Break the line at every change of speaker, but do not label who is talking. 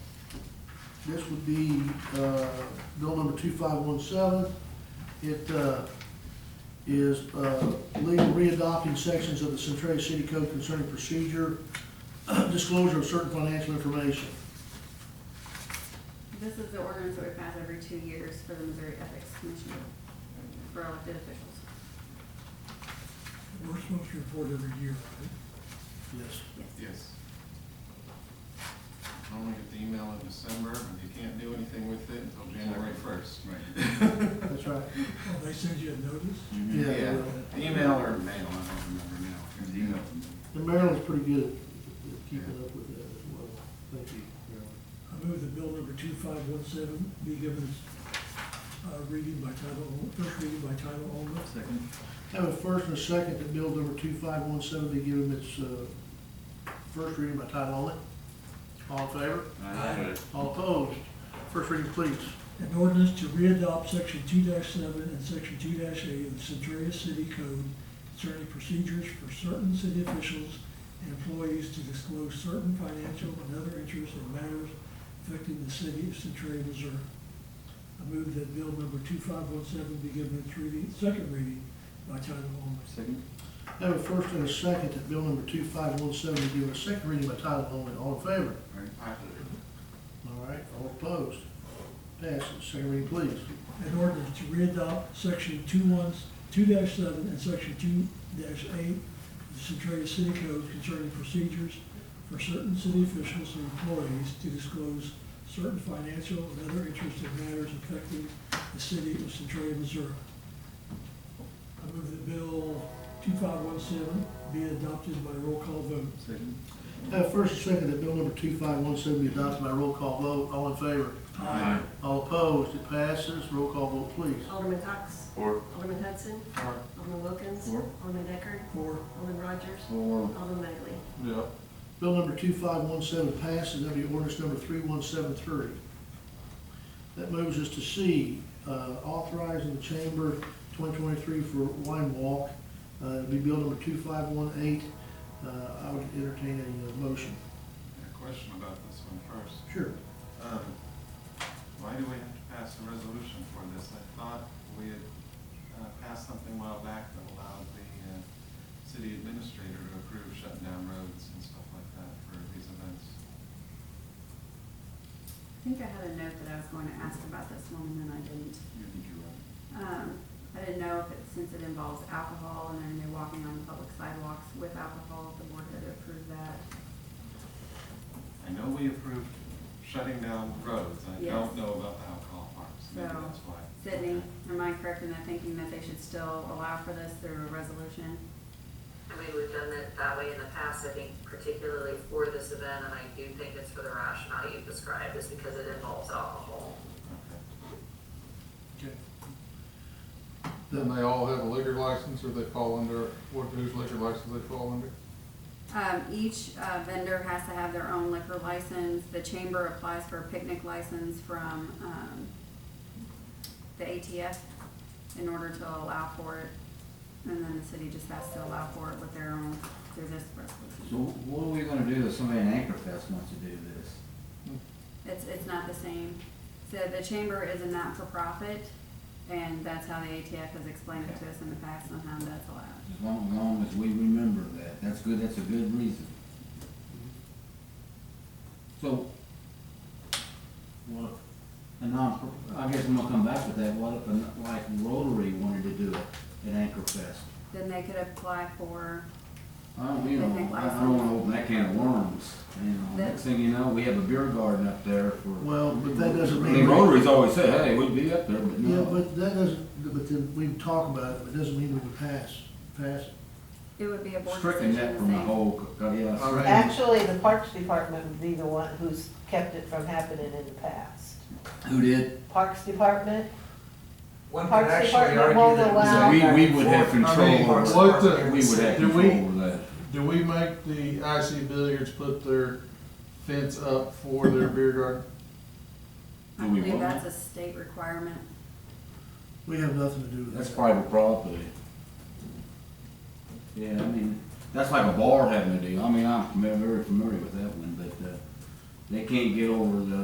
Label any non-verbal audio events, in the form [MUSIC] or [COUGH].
This would be, uh, bill number two five one seven. It, uh, is, uh, legal readopting sections of the Centaria City Code concerning procedure, [CLEARS THROAT] disclosure of certain financial information.
This is the ordinance that we pass every two years for the Missouri Ethics Commission for elected officials.
We're supposed to report every year, right?
Yes.
Yes.
Yes. Normally get the email in December, and you can't do anything with it until January first.
Right.
That's right.
Oh, they send you a notice?
Yeah. they
[LAUGHS] Mm-hmm. Yeah,
will.
email or mail, I don't remember now.
There's email.
And Maryland's pretty good at at keeping up with that as well. Thank you, Marilyn.
I move that bill number two five one seven be given its uh, reading by title, on- first reading by title only.
Second.
Have a first and a second that bill number two five one seven be given its, uh, first reading by title only. All in favor?
Aye.
All opposed? First reading, please.
An ordinance to readopt section two seven and section two eight of the Centaria City Code concerning procedures for certain city officials and employees to disclose certain financial and other interests or matters affecting the city of Centaria, Missouri. I move that bill number two five one seven be given its reading, second reading by title only.
Second.
Have a first and a second that bill number two five one seven be given a second reading by title only. All in favor?
Aye.
All right, all opposed? Passes. Second reading, please.
An ordinance to readopt section two ones, two seven and section two eight of the Centaria City Code concerning procedures for certain city officials and employees to disclose certain financial and other interested matters affecting the city of Centaria, Missouri. I move that bill two five one seven be adopted by roll call vote.
Second.
Have a first and second that bill number two five one seven be adopted by roll call vote. All in favor?
Aye.
All opposed? It passes. Roll call vote, please.
Alderman Cox.
Four.
Alderman Hudson.
Four.
Alderman Wilkins.
Four.
Alderman Deckard.
Four,
Alderman Rogers.
Four.
Alderman Magley.
Yeah.
Bill number two five one seven passes, that'll be ordinance number three one seven three. That moves us to C, uh, authorizing the chamber twenty twenty-three for wine walk. Uh, it'll be bill number two five one eight. Uh, I would entertain a uh, motion.
A question about this one first.
Sure.
Um, Why do we have to pass a resolution for this? I thought we had uh, passed something a while back that allowed the uh, city administrator to approve shutting down roads and stuff like that for these events.
I think I had a note that I was going to ask about this one and then I didn't.
You think you're right.
Um, I didn't know if it, since it involves alcohol and then they're walking on public sidewalks with alcohol, if the board had approved that.
I know we approved shutting down roads. I
Yes.
don't know about the alcohol parks. Maybe
So-
that's why.
Sydney, am I correct in that thinking that they should still allow for this through a resolution?
I mean, we've done it that way in the past, I think particularly for this event, and I do think it's for the rationale you described, is because it involves alcohol.
Okay.
Then they all have a liquor license, or they fall under, what, whose liquor license they fall under?
Um, each uh, vendor has to have their own liquor license. The chamber applies for a picnic license from, um, the ATF in order to allow for it. And then the city just has to allow for it with their own, through this
So
resolution.
what are we gonna do if somebody in Anchorfest wants to do this?
It's, it's not the same. So the chamber is a not-for-profit, and that's how the ATF has explained it to us in the past on how that's allowed.
As long, as long as we remember that, that's good, that's a good reason. So, what, a non, I guess I'm gonna come back with that, what if, a- like Rotary wanted to do it at Anchorfest?
Then they could apply for,
I don't, you know, I I don't wanna open that can of worms, you know, next thing you know, we have a beer garden up there for.
Well, but that doesn't
I
mean.
mean, Rotary's always said, hey, we'd be up there, but
Yeah,
no,
but that doesn't, but then we can talk about it, but it doesn't mean we can pass, pass it.
it would be a board decision
stricken that
the
from the
same.
whole, yeah.
All right.
Actually, the Parks Department would be the one who's kept it from happening in the past.
Who did?
Parks Department,
One could
Parks
actually
Department won't
argue
allow-
that.
We, we would have
I
control
mean,
over,
Parks
it.
What
Department
the-
here in
we would have
Do
control
we-
over that.
Do we make the IC Billiards put their fence up for their beer garden?
I
Do we
believe
want
that's a state requirement.
We have nothing to do with that.
That's private property. Yeah, I mean, that's like a bar having a deal, I mean, I'm fami- very familiar with that one, but, uh, they can't get over the